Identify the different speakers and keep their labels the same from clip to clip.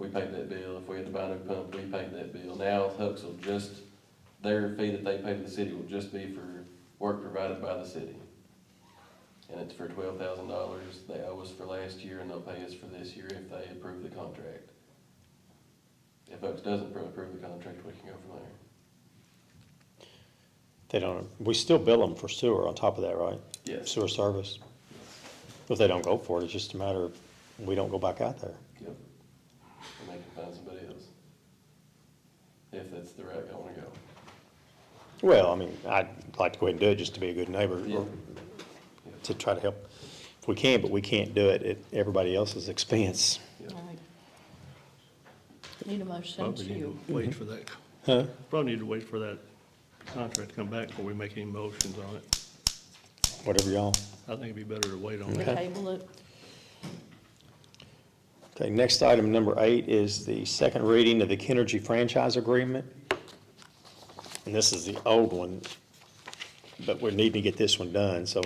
Speaker 1: paid that bill, if we had to buy a new pump, we paid that bill. Now Hooks will just, their fee that they pay to the city will just be for work provided by the city. And it's for twelve thousand dollars, they owe us for last year and they'll pay us for this year if they approve the contract. If Hooks doesn't appro- approve the contract, we can go from there.
Speaker 2: They don't, we still bill them for sewer on top of that, right?
Speaker 1: Yes.
Speaker 2: Sewer service. If they don't go for it, it's just a matter of, we don't go back out there.
Speaker 1: Yep. And they can find somebody else. If that's the route I wanna go.
Speaker 2: Well, I mean, I'd like to go ahead and do it just to be a good neighbor,
Speaker 1: Yeah.
Speaker 2: or to try to help if we can, but we can't do it at everybody else's expense.
Speaker 1: Yep.
Speaker 3: Right. Need a motion
Speaker 4: Probably need
Speaker 3: to,
Speaker 4: to wait for that,
Speaker 2: Huh?
Speaker 4: probably need to wait for that contract to come back before we make any motions on it.
Speaker 2: Whatever y'all.
Speaker 4: I think it'd be better to wait on
Speaker 3: to
Speaker 4: that.
Speaker 3: table it,
Speaker 2: Okay, next item, number eight, is the second reading of the Kenergy franchise agreement. And this is the old one, but we need to get this one done, so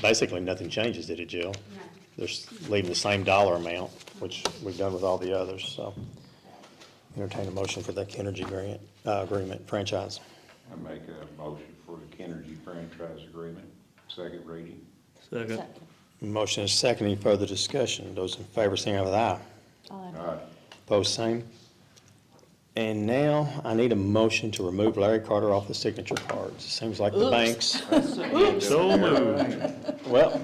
Speaker 2: basically nothing changes, did it, Jill?
Speaker 5: No.
Speaker 2: They're s- leaving the same dollar amount, which we've done with all the others, so. Entertain a motion for that Kenergy grant, uh, agreement franchise.
Speaker 6: I make a motion for the Kenergy franchise agreement, second reading.
Speaker 4: Second,
Speaker 3: second,
Speaker 2: Motion is second, any further discussion? Those in favor, signify with aye.
Speaker 3: aye.
Speaker 6: Aye.
Speaker 2: Post same. And now I need a motion to remove Larry Carter off the signature cards. Seems like the
Speaker 3: Oops.
Speaker 2: banks,
Speaker 4: so moved.
Speaker 2: well,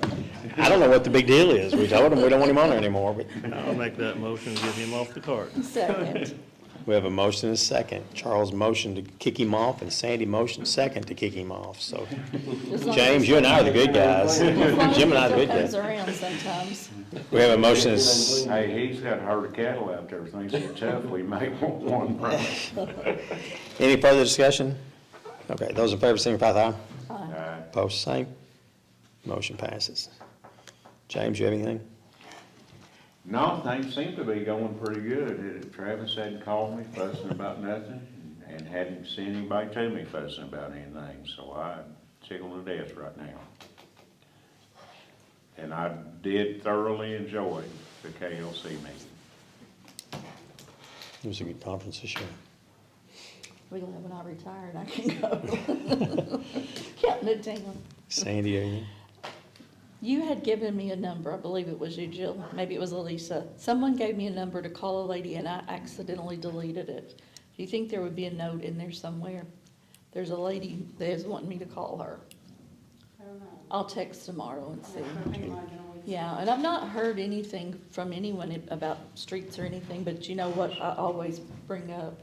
Speaker 2: I don't know what the big deal is. We told them we don't want him on there anymore, but
Speaker 4: I'll make that motion and get him off the cart.
Speaker 3: Second,
Speaker 2: we have a motion and a second. Charles motioned to kick him off and Sandy motioned second to kick him off, so.
Speaker 3: as long
Speaker 2: James,
Speaker 3: as-
Speaker 2: you and I are the good guys.
Speaker 3: as long as
Speaker 2: Jim and I are the
Speaker 3: it
Speaker 2: good guys.
Speaker 3: Comes around sometimes,
Speaker 2: We have a motion, and s-
Speaker 6: Hey, he's got a herd of cattle out there, things are tough, we may want one price.
Speaker 2: any further discussion? Okay, those in favor, signify by aye.
Speaker 6: Aye.
Speaker 2: Post same. Motion passes. James, you have anything?
Speaker 6: No, things seem to be going pretty good. Uh, Travis hadn't called me fussing about nothing, and hadn't seen anybody to me fussing about anything, so I tickled to death right now. And I did thoroughly enjoy the KLC meeting.
Speaker 2: It was a good conference this year.
Speaker 3: we'll have when I retire and I can go. Counting it down.
Speaker 2: Sandy, are you?
Speaker 3: You had given me a number, I believe it was you, Jill, maybe it was Elisa. Someone gave me a number to call a lady and I accidentally deleted it. Do you think there would be a note in there somewhere? There's a lady that is wanting me to call her.
Speaker 5: I don't know.
Speaker 3: I'll text tomorrow and see.
Speaker 5: I think mine can always-
Speaker 3: Yeah, and I've not heard anything from anyone about streets or anything, but you know what I always bring up?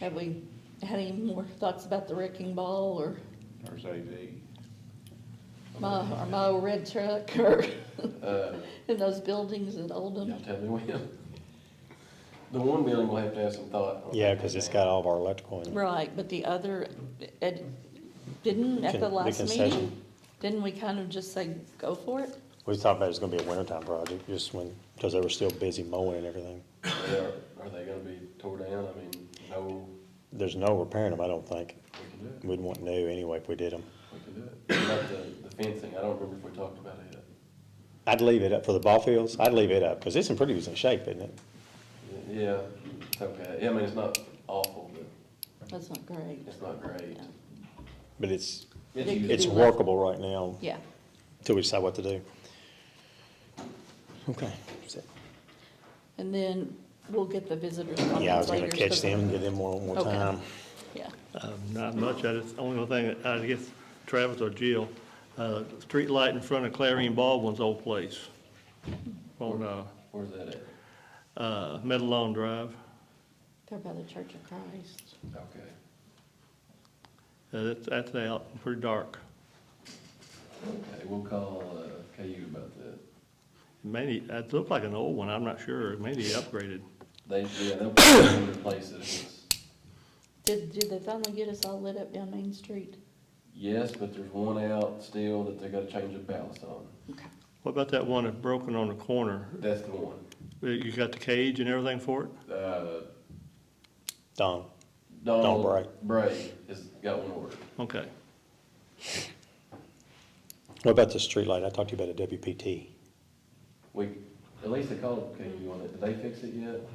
Speaker 3: Have we had any more thoughts about the wrecking ball or
Speaker 6: There's AV.
Speaker 3: my, or my old red truck or
Speaker 1: Uh,
Speaker 3: in those buildings in Oldham?
Speaker 1: Y'all tell me when. The one building will have to have some thought. on.
Speaker 2: Yeah, because it's got all of our electrical in it.
Speaker 3: Right, but the other, it, didn't at
Speaker 2: Con-
Speaker 3: the
Speaker 2: the
Speaker 3: last meeting,
Speaker 2: concession.
Speaker 3: didn't we kind of just say, go for it?
Speaker 2: We thought about it was gonna be a wintertime project, just when, because they were still busy mowing and everything.
Speaker 1: They Are are they gonna be tore down? I mean, no,
Speaker 2: There's no repairing them, I don't think.
Speaker 1: we can do it,
Speaker 2: We'd want new anyway if we did them.
Speaker 1: we can do it. About the, the fencing, I don't remember if we talked about it yet.
Speaker 2: I'd leave it up for the ball fields, I'd leave it up, because it's in pretty decent shape, isn't it?
Speaker 1: Yeah, it's okay. Yeah, I mean, it's not awful, but
Speaker 3: That's not great.
Speaker 1: it's not great.
Speaker 2: But it's,
Speaker 1: It's
Speaker 3: It-
Speaker 1: usable.
Speaker 2: it's workable right now,
Speaker 3: Yeah,
Speaker 2: until we decide what to do. Okay, that's it.
Speaker 3: and then we'll get the visitors
Speaker 2: yeah, I was
Speaker 3: comments
Speaker 2: gonna
Speaker 3: later. so-
Speaker 2: catch them, give them one more
Speaker 3: Okay.
Speaker 2: time.
Speaker 3: Yeah,
Speaker 4: Uh, Not much, I just, only thing, I guess Travis or Jill, uh, street light in front of Clarine Baldwin's old place on, uh,
Speaker 1: Where's that at?
Speaker 4: uh, Meadow Lawn Drive.
Speaker 3: they're by the Church of Christ.
Speaker 1: Okay.
Speaker 4: Uh, That's, that's out, pretty dark.
Speaker 1: Okay, we'll call, uh, KU about that.
Speaker 4: Maybe, it looked like an old one, I'm not sure, maybe upgraded.
Speaker 1: They, yeah, they'll probably replace it. if it's-
Speaker 3: Did, did they finally get us all lit up down Main Street?
Speaker 1: Yes, but there's one out still that they gotta change the ballast on.
Speaker 3: Okay.
Speaker 4: What about that one that's broken on the corner?
Speaker 1: That's the one.
Speaker 4: Uh, You got the cage and everything for it?
Speaker 1: Uh,
Speaker 2: Don,
Speaker 1: Donald
Speaker 2: Bray.
Speaker 1: Bray has got one order.
Speaker 4: Okay.
Speaker 2: what about the streetlight? I talked to you about a WPT.
Speaker 1: We, at least they called KU on it. Did they fix it yet?